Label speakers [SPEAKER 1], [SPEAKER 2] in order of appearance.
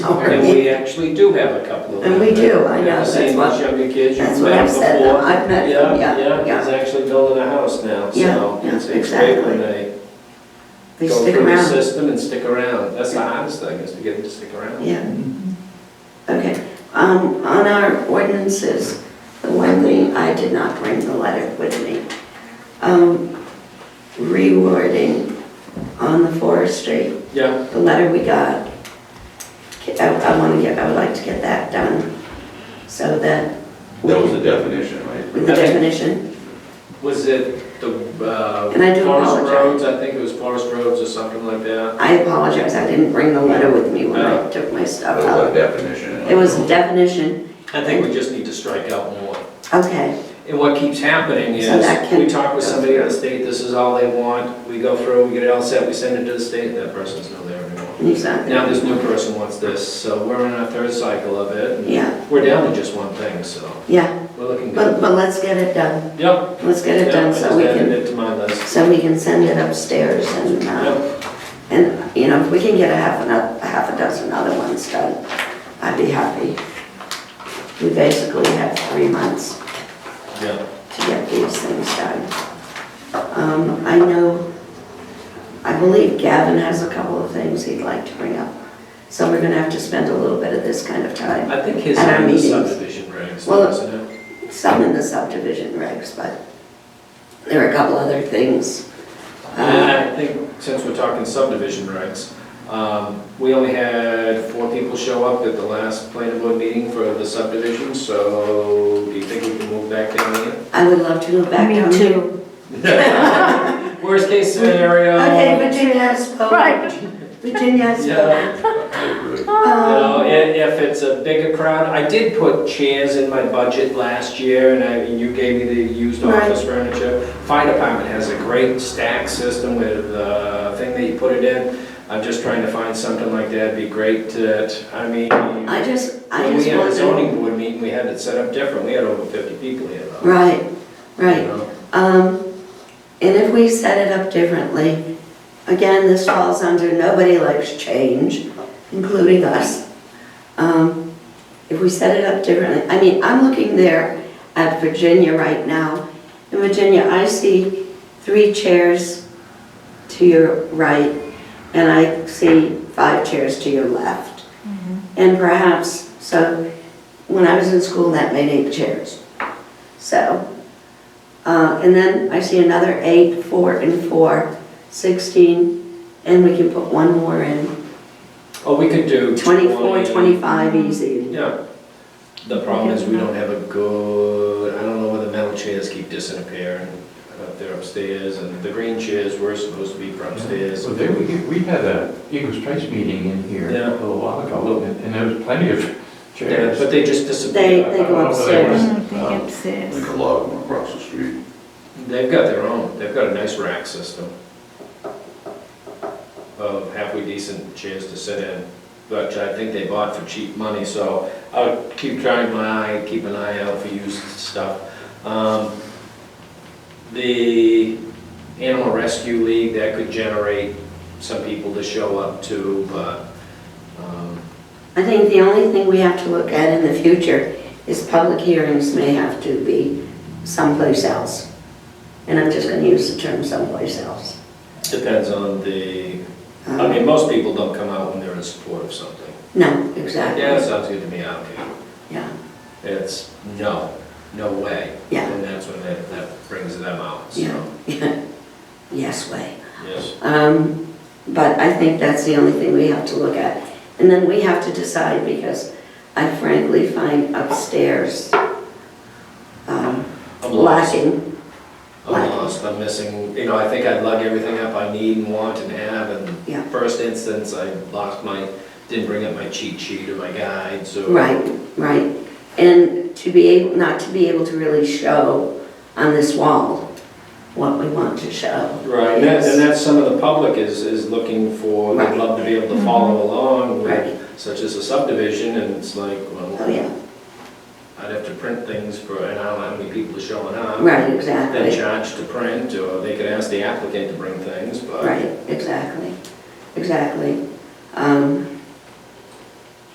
[SPEAKER 1] And
[SPEAKER 2] Okay.
[SPEAKER 1] we actually do have a couple of them.
[SPEAKER 2] And we do, I
[SPEAKER 1] I've
[SPEAKER 2] know, that's
[SPEAKER 1] Seen
[SPEAKER 2] what-
[SPEAKER 1] these younger kids,
[SPEAKER 2] that's
[SPEAKER 1] you've
[SPEAKER 2] what
[SPEAKER 1] met
[SPEAKER 2] I've said,
[SPEAKER 1] before.
[SPEAKER 2] I've met them, yeah, yeah.
[SPEAKER 1] Yeah, he's actually building a house now,
[SPEAKER 2] Yeah,
[SPEAKER 1] so
[SPEAKER 2] yeah,
[SPEAKER 1] it's it's great
[SPEAKER 2] exactly.
[SPEAKER 1] when they
[SPEAKER 2] They
[SPEAKER 1] go
[SPEAKER 2] stick
[SPEAKER 1] through the
[SPEAKER 2] around.
[SPEAKER 1] system and stick around. That's the hardest thing, is to get them to stick around.
[SPEAKER 2] Yeah. Okay, um, on our ordinances, the one thing, I did not bring the letter with me. Um, rewording on the forestry,
[SPEAKER 1] Yeah,
[SPEAKER 2] the letter we got. I, I wanna get, I would like to get that done, so that. we
[SPEAKER 3] That was
[SPEAKER 2] can-
[SPEAKER 3] the definition, right?
[SPEAKER 2] With the definition,
[SPEAKER 1] was it the, uh,
[SPEAKER 2] And I do
[SPEAKER 1] Forest
[SPEAKER 2] apologize.
[SPEAKER 1] Roads, I think it was Forest Roads or something like that.
[SPEAKER 2] I apologize, I didn't bring the letter with me when I took my
[SPEAKER 3] That
[SPEAKER 2] stuff
[SPEAKER 3] was
[SPEAKER 2] out.
[SPEAKER 3] the definition.
[SPEAKER 2] It was a definition,
[SPEAKER 1] I think we just need to strike out more.
[SPEAKER 2] okay,
[SPEAKER 1] And what keeps happening is,
[SPEAKER 2] So that can-
[SPEAKER 1] we talk with somebody at the state, this is all they want, we go through, we get it all set, we send it to the state, and that person's not there anymore.
[SPEAKER 2] exactly,
[SPEAKER 1] Now this new person wants this, so we're in our third cycle of it.
[SPEAKER 2] yeah,
[SPEAKER 1] We're down to just one thing, so
[SPEAKER 2] yeah,
[SPEAKER 1] we're looking
[SPEAKER 2] but,
[SPEAKER 1] good.
[SPEAKER 2] but let's get it done,
[SPEAKER 1] Yep.
[SPEAKER 2] let's get it
[SPEAKER 1] yep,
[SPEAKER 2] done
[SPEAKER 1] I
[SPEAKER 2] so
[SPEAKER 1] just
[SPEAKER 2] we
[SPEAKER 1] added
[SPEAKER 2] can,
[SPEAKER 1] it to my list.
[SPEAKER 2] so we can send it upstairs and, uh,
[SPEAKER 1] Yep,
[SPEAKER 2] and, you know, if we can get a half, ano- a half a dozen other ones done, I'd be happy. We basically have three months
[SPEAKER 1] yep.
[SPEAKER 2] to get these things done. Um, I know, I believe Gavin has a couple of things he'd like to bring up, so we're gonna have to spend a little bit of this kind of time.
[SPEAKER 1] I think his
[SPEAKER 2] At our
[SPEAKER 1] name is
[SPEAKER 2] meetings.
[SPEAKER 1] subdivision regs,
[SPEAKER 2] Well,
[SPEAKER 1] isn't it?
[SPEAKER 2] some in the subdivision regs, but there are a couple other things. Uh,
[SPEAKER 1] And I think, since we're talking subdivision regs, um, we only had four people show up at the last planning board meeting for the subdivision, so do you think we can move back down here?
[SPEAKER 2] I would love to go back down.
[SPEAKER 4] Me too.
[SPEAKER 1] Worst case scenario.
[SPEAKER 2] Okay, Virginia has spoken.
[SPEAKER 4] Right.
[SPEAKER 2] Virginia has
[SPEAKER 1] Yeah.
[SPEAKER 2] spoken.
[SPEAKER 3] I agree.
[SPEAKER 1] You know,
[SPEAKER 2] Um,
[SPEAKER 1] if, if it's a bigger crowd, I did put chairs in my budget last year, and I, and you gave me the used
[SPEAKER 2] Right.
[SPEAKER 1] office furniture. Fire department has a great stack system with the thing that you put it in. I'm just trying to find something like that, It'd be great to, I mean,
[SPEAKER 2] I
[SPEAKER 1] when
[SPEAKER 2] just, I
[SPEAKER 1] we
[SPEAKER 2] just
[SPEAKER 1] had a
[SPEAKER 2] want to.
[SPEAKER 1] zoning board meeting, we had it set up different, we had over fifty people here though. you
[SPEAKER 2] Right, right.
[SPEAKER 1] know.
[SPEAKER 2] Um, And if we set it up differently, again, this falls under nobody likes change, including us. Um, If we set it up differently, I mean, I'm looking there at Virginia right now. In Virginia, I see three chairs to your right, and I see five chairs to your left. And perhaps, so, when I was in school, that made eight chairs. So, uh, and then I see another eight, four and four, 16, and we can put one more in.
[SPEAKER 1] Or Oh, we could do.
[SPEAKER 2] 24,
[SPEAKER 1] 20.
[SPEAKER 2] 25, easy.
[SPEAKER 1] Yeah. The problem is we don't have a good, I don't know whether metal chairs keep disappearing up there upstairs and the green chairs were supposed to be for upstairs.
[SPEAKER 5] So there we, get- we had a Eagles Trace meeting in here
[SPEAKER 1] Yeah.
[SPEAKER 5] a little while ago, a little bit, and there was plenty of
[SPEAKER 1] Yeah,
[SPEAKER 5] chairs.
[SPEAKER 1] But they just
[SPEAKER 2] They,
[SPEAKER 1] disappear.
[SPEAKER 2] they go upstairs.
[SPEAKER 4] Mm, They get
[SPEAKER 3] I
[SPEAKER 4] upstairs.
[SPEAKER 3] think a lot of them across the street.
[SPEAKER 1] They've got their own, they've got a nice rack system of halfway decent chairs to sit in, which I think they bought for cheap money, so I'll keep trying my eye, keep an eye out for used stuff. Um, The Animal Rescue League, that could generate some people to show up to, but, um,
[SPEAKER 2] I think the only thing we have to look at in the future is public hearings may have to be someplace else. And I'm just gonna use the term someplace else.
[SPEAKER 1] depends on the, I
[SPEAKER 2] Um,
[SPEAKER 1] mean, most people don't come out when they're in support of something.
[SPEAKER 2] No, exactly.
[SPEAKER 1] Yeah, that sounds good to me, I don't care.
[SPEAKER 2] Yeah.
[SPEAKER 1] it's no, no way.
[SPEAKER 2] Yeah.
[SPEAKER 1] And that's when that, that brings them out,
[SPEAKER 2] Yeah.
[SPEAKER 1] so,
[SPEAKER 2] Yes way.
[SPEAKER 1] yes.
[SPEAKER 2] Um, But I think that's the only thing we have to look at. And then we have to decide, because I frankly find upstairs um,
[SPEAKER 1] I'm lost.
[SPEAKER 2] lacking.
[SPEAKER 1] I'm lost, I'm missing, you know, I think I lug everything up I need and want and have,
[SPEAKER 2] Yeah.
[SPEAKER 1] and first instance, I lost my, didn't bring up my cheat sheet or my guide, so.
[SPEAKER 2] Right, right. And to be able, not to be able to really show on this wall what we want to show.
[SPEAKER 1] Right, and that's,
[SPEAKER 2] is-
[SPEAKER 1] and that's some of the public is, is looking for,
[SPEAKER 2] Right. Mm-hmm.
[SPEAKER 1] they'd love to be able to follow along
[SPEAKER 2] Right.
[SPEAKER 1] with, such as a subdivision, and it's like,
[SPEAKER 2] Oh,
[SPEAKER 1] well,
[SPEAKER 2] yeah,
[SPEAKER 1] I'd have to print things for, and I don't know how many people are showing up.
[SPEAKER 2] right,
[SPEAKER 1] Then
[SPEAKER 2] exactly.
[SPEAKER 1] charge to print, or they could ask the applicant to bring things, but.
[SPEAKER 2] Right, exactly, exactly. Um,